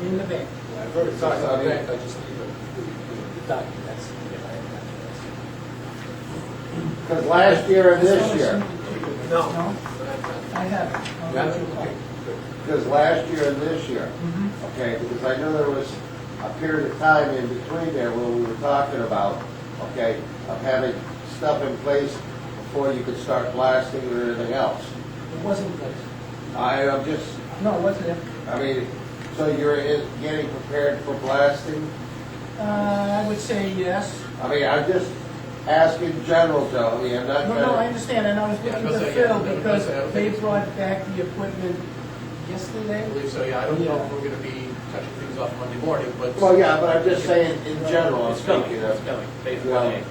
in the bank. I've already It's not talked a about bank, it. I just need a. Documents. Because last year and this year, No. I have. it. I'll Yeah. let you call. because last year and this year, Mhm. okay, because I knew there was a period of time in between there where we were talking about, okay, of having stuff in place before you could start blasting or anything else. It wasn't good. I, I'm just, No, it wasn't. I mean, so you're in- getting prepared for blasting? Uh, I would say yes. I mean, I'm just asking general, Joey, I'm not No, no, I trying to... understand, and I was Yeah, looking because to I- Phil yeah, because I because don't they think- brought back the equipment yesterday. I believe so, yeah, I don't know if we're gonna be touching things off Monday morning, but. Well, yeah, but I'm just saying in general, I'm It's coming, thinking it's of, coming, based Yeah. on it.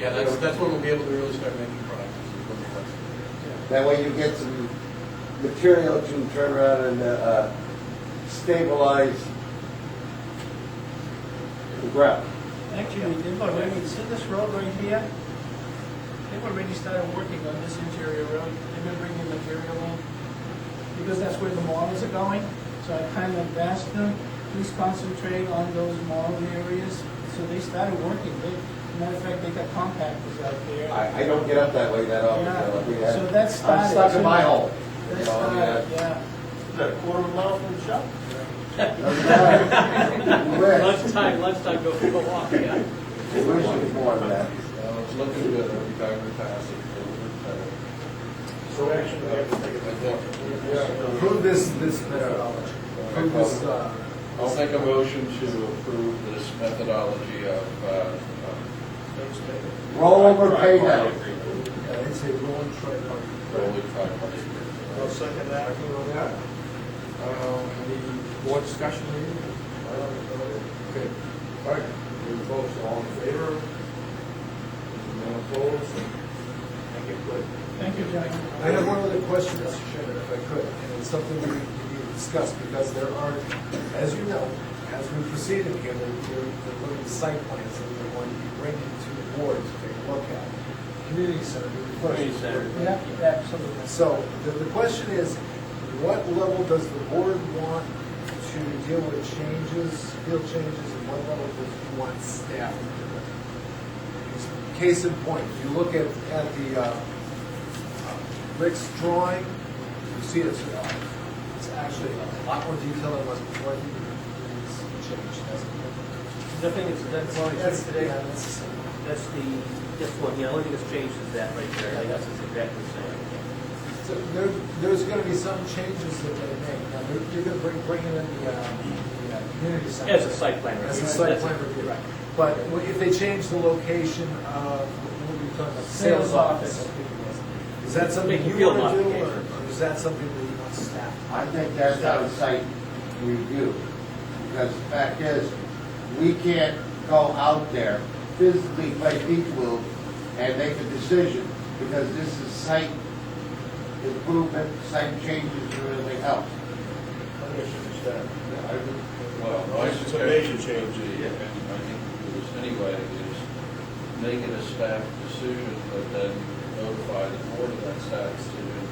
Yeah, that's, that's when we'll be able to really start making progress. is when we're done. that way you get some material to turn around and, uh, uh, stabilize the ground. Actually, they've already, see this road right here? They've already started working on this interior road, they've been bringing material in, because that's where the models are going. So I kind of asked them, please concentrate on those model areas. So they started working. They, matter of fact, they got compactors out there. I, I don't get up that way that often, Yeah. so I mean, I- So that's I'm stuck started. in my hole. They You know, I mean, uh, started, A yeah. quarter of a mile from the shop? I- doesn't matter. You wish- lunchtime, lunchtime, go for a walk, yeah. you wish it was more than that. Uh, It's looking good, I'll be back in the past. So action, I have to take it. Approve this, this methodology. Approve this, uh, I'll make a motion to approve this methodology of, uh, of Roll over pay down. I didn't say rolling tripod. rolling five hundred. I'll second that. Um, Any more discussion here? Okay, all right, we vote all in favor? No opposed? Thank you. Thank you, John. I have one other question, Mr. Chairman, if I could, and it's something we we need to discuss, because there are, as you know, as we proceed in here, there there- there are limited site plans that we want to be bringing to the board to take a look at. Community center, the question. Community center. Yeah, absolutely. So the, the question is, what level does the board want to deal with changes, field changes, and what level does you want staff to do it? Case in point, you look at, at the, uh, Rick's drawing, you see it's, uh, it's actually a lot more detail than it was before, I think it's changed, hasn't it? Nothing is, that's, that's, Yeah, that's- uh, that's the, this one, the only thing that's changed is that right there, everything else is exactly the same. So there, there's gonna be some changes that they make. Now, you're- you're gonna bring, bring in the, uh, the uh, community center. As a site plan review. As a site That's plan it. review. Right. But w- if they change the location of, what were you talking about? Sales office. Is that something Make you field wanna do, or modifications. or is that something that you want staff? I think that's out of sight review, because the fact is, we can't go out there physically play people and make a decision, because this is site improvement, site changes, or anything else. Well, my It's a suggestion major change. would be, and I think it was anyway, is make it a staff decision, but then notify the board of that staff decision.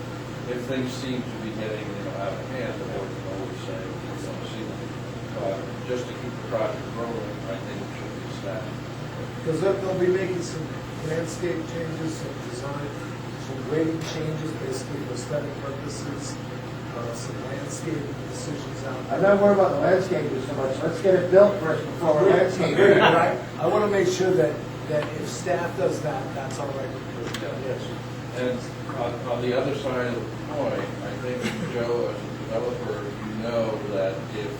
If things seem to be getting, you know, out of hand, the board can always say, we want to see them. Uh, Just to keep the project rolling, I think it should be staff. Because they'll, they'll be making some landscape changes, some design, some grading changes, basically for aesthetic purposes, uh, some landscape decisions out. there. I'm not worried about the landscaping so much, let's get it built first before we landscape Agreed, it. right? I want to make sure that, that if staff does that, that's all right. with the board. Yes. And on, on the other side of the coin, I think, Joe, as a developer, you know that if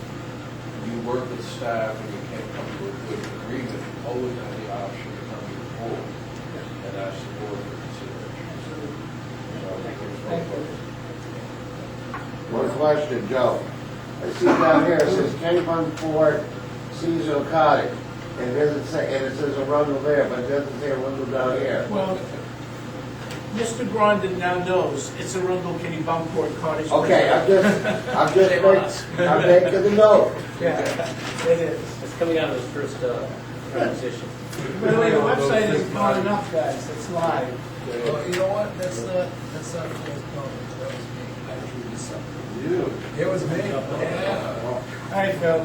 you work with staff and you can't come to a good agreement, you always have the option to come to the board and ask the board for consideration. So, there's no question. One question, Joe. I see down here, it says Kevin Ford Cecil Cottage, and it doesn't say, and it says Arundel there, but it doesn't say Arundel down here. Well, Mr. Grondin now knows it's a Arundel Kitty Bunkport Cottage. Okay, I'm just, I'm Shame on us. just, making- I'm making the note. Yeah, it is. it's coming out of this first, uh, transition. By the way, the website is not enough, guys, it's live. Well, you know what, that's not, that's not Phil's comment, that was me. I drew this up. You. It was me. Yeah. All right, Phil.